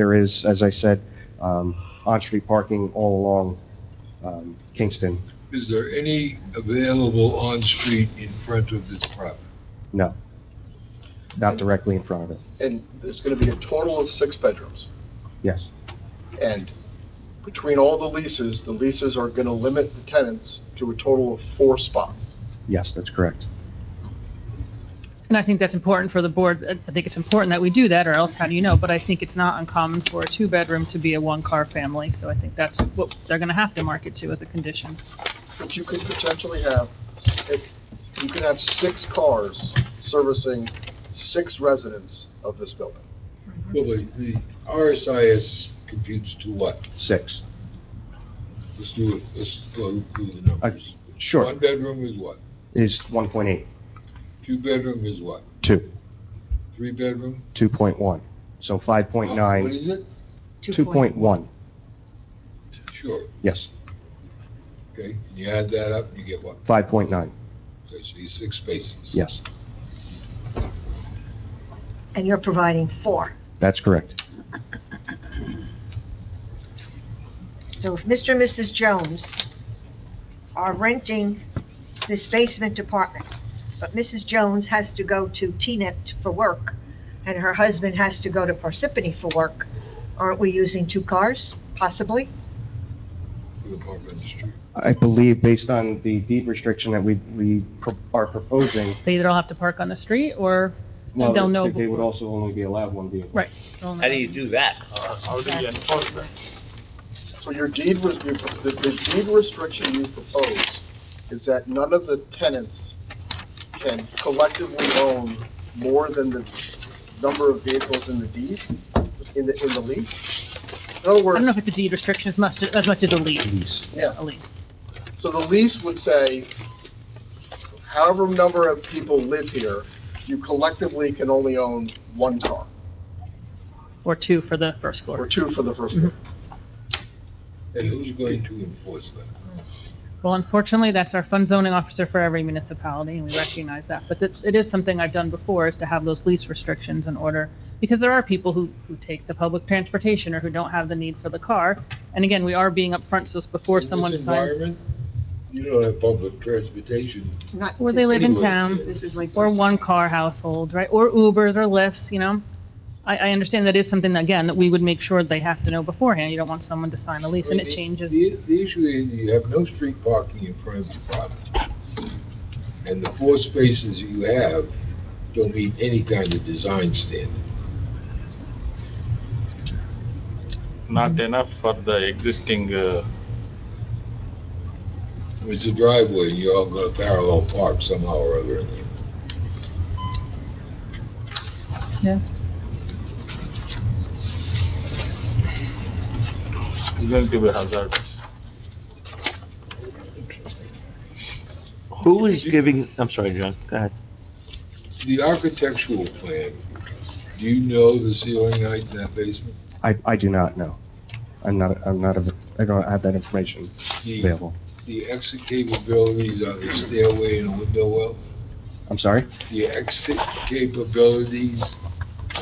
There is, as I said, um, on-street parking all along um, Kingston. Is there any available on-street in front of this property? No, not directly in front of it. And there's going to be a total of six bedrooms. Yes, And between all the leases, the leases are going to limit the tenants to a total of four spots. yes, that's correct. And I think that's important for the board. I- I think it's important that we do that, or else how do you know? But I think it's not uncommon for a two-bedroom to be a one-car family, so I think that's what they're going to have to market to as a condition. But you could potentially have, if- you could have six cars servicing six residents of this building. Well, the, the RSIS computes to what? Six, Let's do it, let's go through the numbers. Uh, sure, One bedroom is what? is 1.8, Two bedroom is what? 2, Three bedroom? 2.1, so Oh, What 5.9, is it? 2.1, Sure, yes, okay, you add that up, you get what? 5.9, Okay, so you six spaces. yes, And you're providing four. that's correct. So if Mr. and Mrs. Jones are renting this basement apartment, but Mrs. Jones has to go to Teaneck for work, and her husband has to go to Parsippany for work, aren't we using two cars, possibly? The apartment street. I believe, based on the deed restriction that we, we pro- are proposing, They either all have to park on the street, or well, They'll know they- they would before. also only be allowed one vehicle. How do you do that? So your deed, re- your- the the deed restriction you propose is that none of the tenants can collectively own more than the number of vehicles in the deed, in the, in the lease? In other I words. don't know if it's a deed restriction as much, as much as a lease, Lease, Yeah, a lease. so the lease would say, however number of people live here, you collectively can only own one car, or two for the first or floor. two for the first one. And who's going to enforce that? Well, unfortunately, that's our fund zoning officer for every municipality, and we recognize that. But it, it is something I've done before, is to have those lease restrictions in order, because there are people who, who take the public transportation or who don't have the need for the car. And again, we are being upfront, so it's before In this someone signs, environment, You don't have public transportation. Not or they live in Anyway, town, This is like. or one-car household, right, or Ubers or Lyfts, you know? I, I understand that is something, again, that we would make sure they have to know beforehand. You don't want someone to sign a lease, and it The- changes. The, the issue is you have no street parking in front of the property. And the four spaces that you have don't meet any kind of design standard. not enough for the existing, uh, It's a driveway, and you're all gonna parallel park somehow or other in there. it's going to be hazardous. Who is giving, I'm sorry, John, go ahead. The architectural plan, do you know the ceiling height in that basement? I, I do not know. I'm not, I'm not, a- I don't have that information The, available. the exit capabilities on the stairway and a window well? I'm sorry? The exit capabilities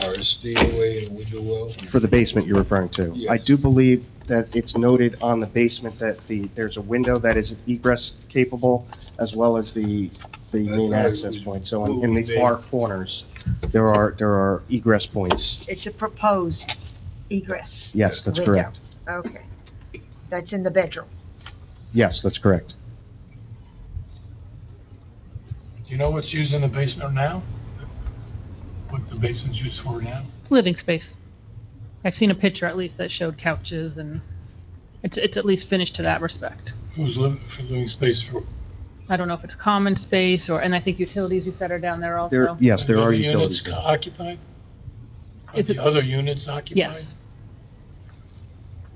are a stairway and a window well? For the basement you're referring to? I Yes. do believe that it's noted on the basement that the, there's a window that is egress capable, as well as the, the main That's right. access point. So in- in the far corners, there are, there are egress points. It's a proposed egress, Yes, that's Window. correct. okay. That's in the bedroom. Yes, that's correct. Do you know what's used in the basement now? What the basement's used for now? living space. I've seen a picture at least that showed couches and it's, it's at least finished to that respect. Who's living, for living space for? I don't know if it's common space or, and I think utilities you said are down there There, also. yes, there are the other utilities. Units occupied? Are Is the it- other units occupied? Yes.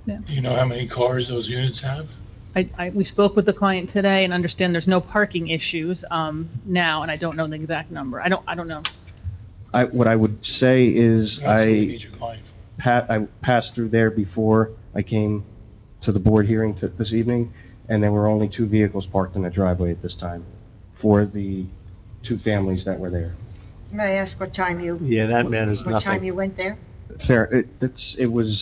Do you know how many cars those units have? I, I, we spoke with the client today and understand there's no parking issues, um, now, and I don't know the exact number. I don't, I don't know. I, what I would say is That's what you I, need your client for. pa- I passed through there before I came to the board hearing to, this evening, and there were only two vehicles parked in the driveway at this time for the two families that were there. May I ask what time you, Yeah, that man is what time nothing. you went there? fair, it, it's, it was